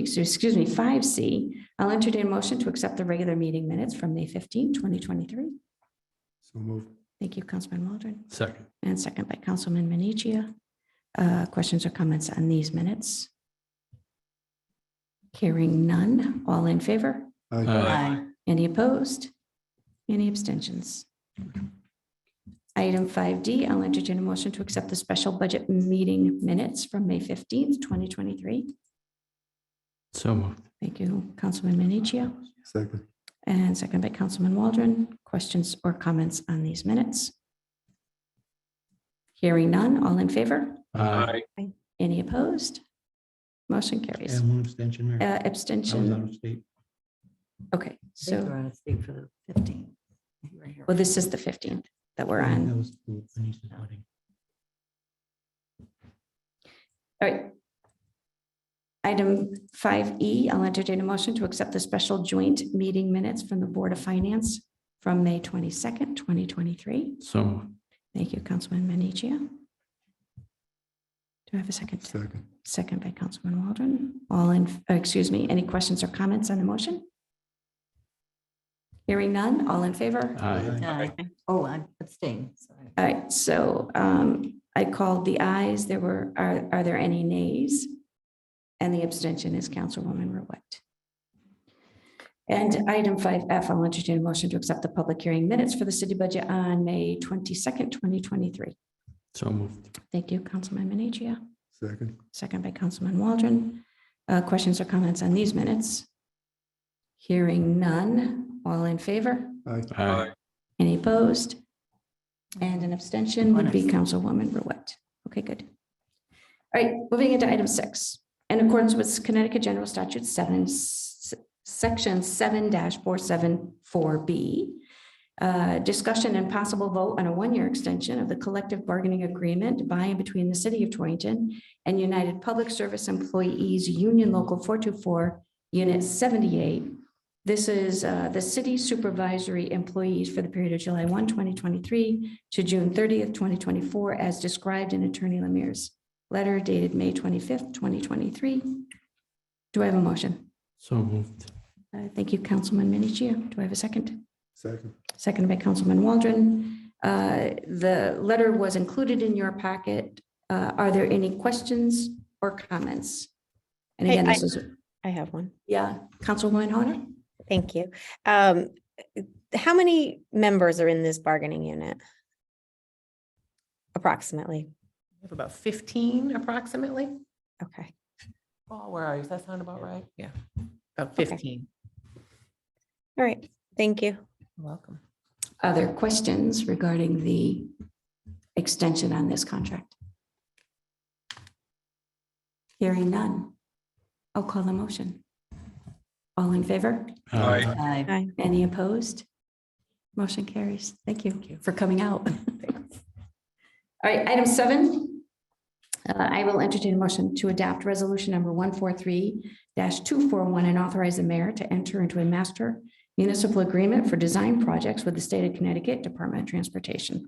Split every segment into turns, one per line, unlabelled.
excuse me, five C, I'll entertain a motion to accept the regular meeting minutes from May 15, 2023.
So moved.
Thank you, Councilman Waldron,
Second.
and second by Councilman Menichia. Uh, questions or comments on these minutes? Hearing none, all in favor?
Aye.
Any opposed? Any abstentions? Item 5D, I'll entertain a motion to accept the special budget meeting minutes from May 15th, 2023.
So moved.
Thank you, Councilman Minichia,
Second.
and second by Councilman Waldron. Questions or comments on these minutes? Hearing none, all in favor?
Aye.
Any opposed? Motion carries.
And one abstention, Mayor.
Uh,
I was out
Abstention,
of state.
okay,
We're
so,
on a state for the fifteen.
well, this is the 15th that we're on.
That was Denise's wedding.
All right. Item five E, I'll entertain a motion to accept the special joint meeting minutes from the Board of Finance from May twenty-second, twenty twenty-three.
So moved.
Thank you, Councilman Menichia. Do I have a second?
Second.
Second by Councilman Waldron. All in, uh, excuse me, any questions or comments on the motion? Hearing none, all in favor?
Aye.
Aye. Oh, I'm abstaining, sorry.
All right, so um, I called the ayes. There were, are, are there any nays? And the abstention is Councilwoman Ruette. And item five F, I'll entertain a motion to accept the public hearing minutes for the city budget on May twenty-second, twenty twenty-three.
So moved.
Thank you, Councilman Minichia,
Second.
second by Councilman Waldron. Uh, Questions or comments on these minutes? Hearing none. All in favor?
Aye.
Aye.
Any opposed? And an abstention would be Councilwoman Ruette. Okay, good. All right, moving into item six. In accordance with Connecticut General Statute seven, s- section seven four seven four B. uh, Discussion and possible vote on a one-year extension of the collective bargaining agreement by and between the city of Torrington and United Public Service Employees Union Local four two four, Unit seventy-eight, this is uh, the city supervisory employees for the period of July 1, 2023 to June 30th, 2024, as described in Attorney Lemire's letter dated May 25th, 2023. Do I have a motion?
So moved.
Uh, Thank you, Councilman Minichia. Do I have a second?
Second.
Seconded by Councilman Waldron. Uh, The letter was included in your packet. Uh, Are there any questions or comments? And
Hey,
again,
I-
this is,
I have one.
yeah, Councilwoman Honor?
Thank you. Um, how many members are in this bargaining unit? Approximately.
We have about fifteen approximately.
Okay.
Paul, where are you? Does that sound about right?
Yeah, about
Okay.
fifteen.
All right. Thank you.
You're Welcome.
other questions regarding the extension on this contract? Hearing none. I'll call the motion. All in favor?
Aye.
Aye.
Aye.
Any opposed? Motion carries. Thank you for coming out. All right, item seven. Uh, I will entertain a motion to adopt resolution number one four three two four one and authorize the mayor to enter into a master municipal agreement for design projects with the state of Connecticut Department of Transportation.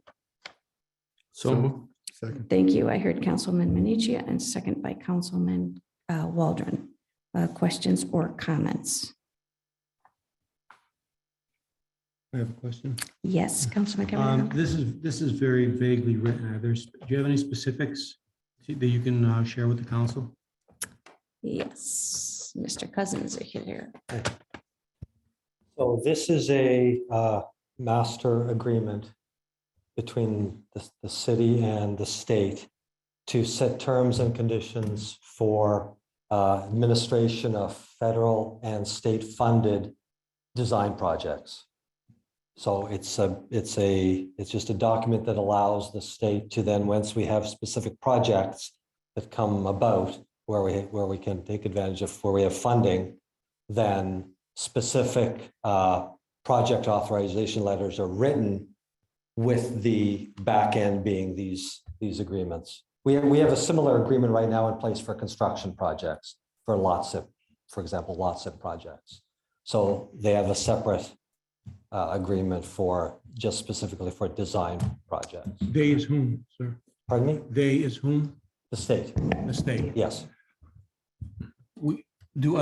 So moved.
Second.
Thank you. I heard Councilman Menichia and second by Councilman uh, Waldron. Uh, Questions or comments?
I have a question.
Yes, Councilman
Um,
Cavanagh.
this is, this is very vaguely written. Are there, do you have any specifics that you can uh, share with the council?
Yes, Mr. Cousins is here.
So this is a uh, master agreement between the, the city and the state to set terms and conditions for uh, administration of federal and state-funded design projects. So it's a, it's a, it's just a document that allows the state to then, once we have specific projects that come about, where we, where we can take advantage of, where we have funding, then specific uh, project authorization letters are written with the back end being these, these agreements. We, we have a similar agreement right now in place for construction projects, for lots of, for example, lots of projects. So they have a separate uh, agreement for, just specifically for design projects.
They is whom, sir?
Pardon me?
They is whom?
The state,
The state.
yes.
We, do